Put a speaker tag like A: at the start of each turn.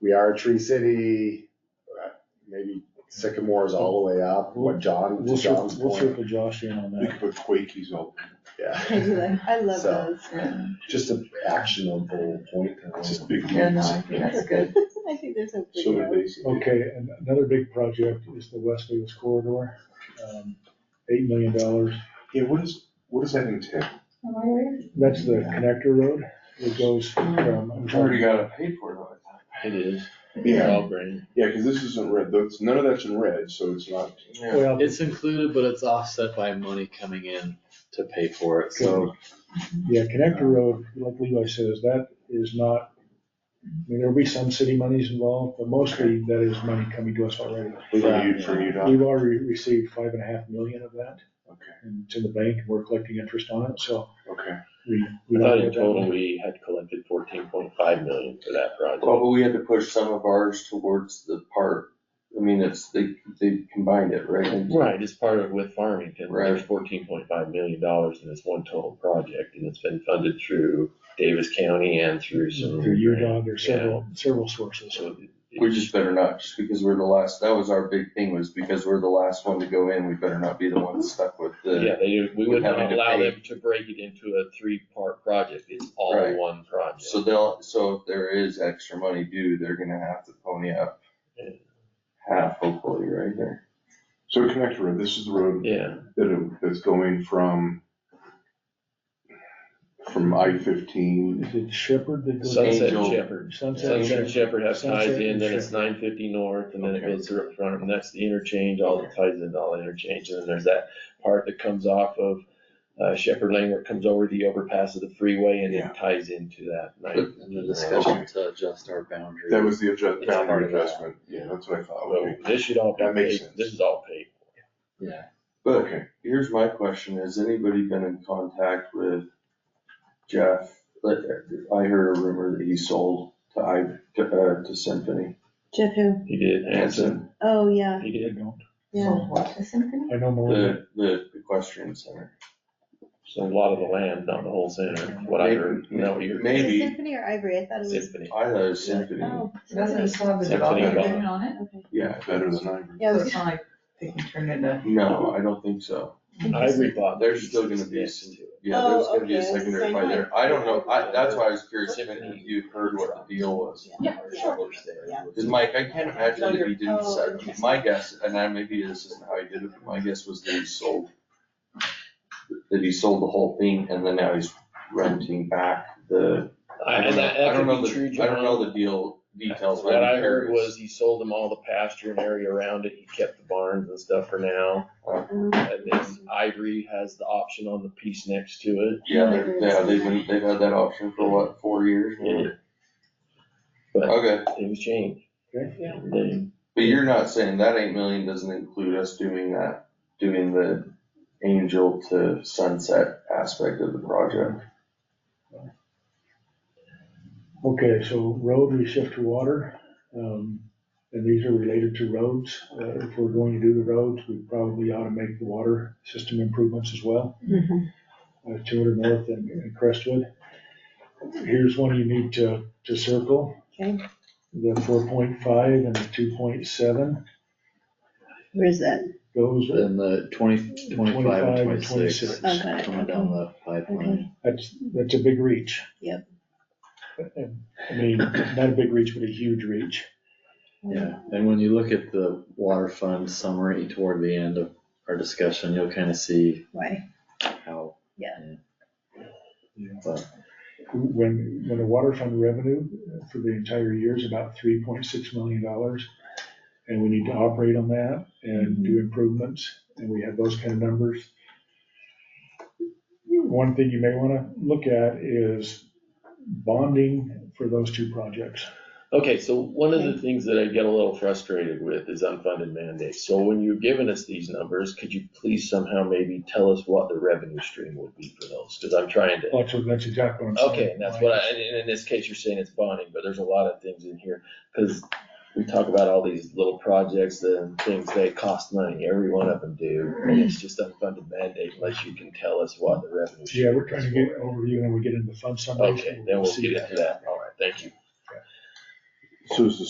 A: we are a tree city, uh, maybe sycamores all the way up, what John,
B: We'll
A: to
B: circle,
A: John's
B: we'll
A: point.
B: circle Josh in on
C: We
B: that.
C: could put Quakies out.
A: Yeah,
D: I do like, I love
A: So-
D: those.
A: just an actionable point.
C: It's just big.
E: Yeah, no,
C: leaves.
E: I think that's good.
D: I think they're so pretty.
C: So they're basic.
B: Okay, and another big project is the West Vegas corridor, um, eight million dollars.
C: Yeah, what is, what does that entail?
B: That's the connector road that goes from.
C: We've already got it paid for, though, I
F: It is.
C: think.
F: It's
C: Yeah,
F: all green.
C: yeah, because this isn't red, that's, none of that's in red, so it's not.
B: Well,
F: It's included, but it's offset by money coming in to pay for it, so
B: yeah, connector road, like Levi says, that is not, I mean, there'll be some city monies involved, but mostly that is money coming to us already.
C: For you, for you, Doc.
B: We've already received five and a half million of that,
C: Okay,
B: and it's in the bank, and we're collecting interest on it, so
C: okay.
B: we. we
G: I thought in
B: don't-
G: total we had collected fourteen point five million for that
H: Well,
G: project.
H: but we had to push some of ours towards the park. I mean, it's, they, they combined it, right?
G: Right, it's part of with Farmington, there's
H: Right.
G: fourteen point five million dollars in this one total project, and it's been funded through Davis County and through some.
B: Through UDOG, there's several, several sources.
G: So it-
H: We just better not, just because we're the last, that was our big thing, was because we're the last one to go in, we better not be the ones stuck with
G: Yeah,
H: the.
G: they, we
H: We're
G: would
H: having
G: not
H: to
G: allow
H: pay.
G: them to break it into a three-part project, it's all
H: Right.
G: one project.
H: So they'll, so if there is extra money due, they're gonna have to pony up
G: Yeah.
H: half hopefully, right there.
C: So connector road, this is the road
G: Yeah,
C: that, it- that's going from, from I fifteen,
B: Is it Shepherd that goes?
G: Sunset
H: Angel.
G: Shepherd,
B: Sunset
G: Sunset
B: Shepherd.
G: Shepherd has ties
B: Sunset
G: in,
B: and
G: then it's
B: Shepherd.
G: nine fifty north, and then it
C: Okay.
G: goes through up front, and that's the interchange, all the ties into all the interchange, and then there's that part that comes off of uh, Shepherd Lane where it comes over the overpass of the freeway and
C: Yeah.
G: it ties into that.
F: in the discussion to adjust our boundaries.
C: that was the adjust,
F: It's
C: boundary
F: part of that.
C: adjustment, yeah, that's what I thought,
G: So
C: okay,
G: this should all be
C: That makes
G: paid,
C: sense.
G: this is all paid.
F: Yeah.
H: But
C: okay.
H: here's my question, has anybody been in contact with Jeff? Like, I heard a rumor that he sold to I, to, uh, to Symphony.
D: Jeff who?
G: He did, Hanson,
D: Oh, yeah,
G: he
B: I
G: did,
B: don't,
D: yeah.
B: Oh,
E: What, the symphony?
B: I know more than,
H: The, the equestrian center.
G: so a lot of the land, not the whole center, what I heard, is that what you heard?
D: Is it
H: Maybe,
D: Symphony or Ivory? I thought it was.
G: Symphony.
H: I thought it was symphony,
D: Oh,
E: Doesn't it
D: Symphony.
E: still have the
G: Symphony
E: development
G: about-
E: agreement on it?
D: Okay.
H: yeah.
C: Better than I.
D: Yeah,
E: So
D: it was
E: it's not like they can turn into,
H: No, I don't think so.
G: Ivory bought.
H: There's still gonna be
G: pieces
H: some,
G: next to it.
H: yeah, there's
D: Oh,
H: gonna be a
D: okay, it's the
H: secondary
D: same
H: by there.
D: one.
H: I don't know, I, that's why I was curious if any of you heard what the deal was.
D: Yeah, sure. Yeah.
H: Cause Mike, I can't imagine that he didn't
D: Oh,
H: sell,
D: interesting.
H: my guess, and I, maybe this isn't how he did it, but my guess was that he sold. That he sold the whole thing and then now he's renting back the, I
G: And
H: don't know,
G: that,
H: I
G: that
H: don't know
G: could be true,
H: the, I don't
G: John.
H: know the deal details, but
G: What I
H: I'm
G: heard was
H: curious.
G: he sold them all the pasture and area around it, he kept the barns and stuff for now. And then Ivory has the option on the piece next to it,
H: Yeah, they're, yeah, they've been, they've had that option for what, four years?
G: Yeah. But-
H: Okay,
G: things change.
B: Okay.
G: And then-
H: but you're not saying that eight million doesn't include us doing that, doing the angel to sunset aspect of the project?
B: okay, so road, we shift to water. Um, and these are related to roads. Uh, if we're going to do the roads, we probably ought to make the water system improvements as well.
D: Mhm.
E: Mm-hmm.
B: Uh, two hundred north and and Crestwood. Here's one you need to, to circle,
D: Okay,
B: the four point five and the two point seven.
D: where's that?
B: Those,
F: Then the twenty, twenty-five and
B: 25,
F: twenty-six
D: 26.
F: coming down the pipeline.
B: that's, that's a big reach.
D: Yep.
B: I mean, not a big reach, but a huge reach.
F: Yeah, and when you look at the water fund summary toward the end of our discussion, you'll kind of see
D: Why?
F: how.
D: Yeah.
F: But
B: when, when the water fund revenue for the entire year is about three point six million dollars. And we need to operate on that and do improvements, and we have those kind of numbers. One thing you may wanna look at is bonding for those two projects.
G: Okay, so one of the things that I get a little frustrated with is unfunded mandates. So when you're giving us these numbers, could you please somehow maybe tell us what the revenue stream would be for those? Cause I'm trying to
B: That's, what- that's exactly what I'm saying.
G: Okay, and that's what I, and in- in this case, you're saying it's bonding, but there's a lot of things in here, cause we talk about all these little projects and things, they cost money, every one of them do. And it's just unfunded mandate unless you can tell us what the revenue.
B: Yeah, we're
G: stream
B: trying
G: is
B: to get
G: for.
B: over you when we get into fund summaries.
G: Okay, then we'll
B: see
G: get
B: that.
G: into that, alright, thank you.
C: So is the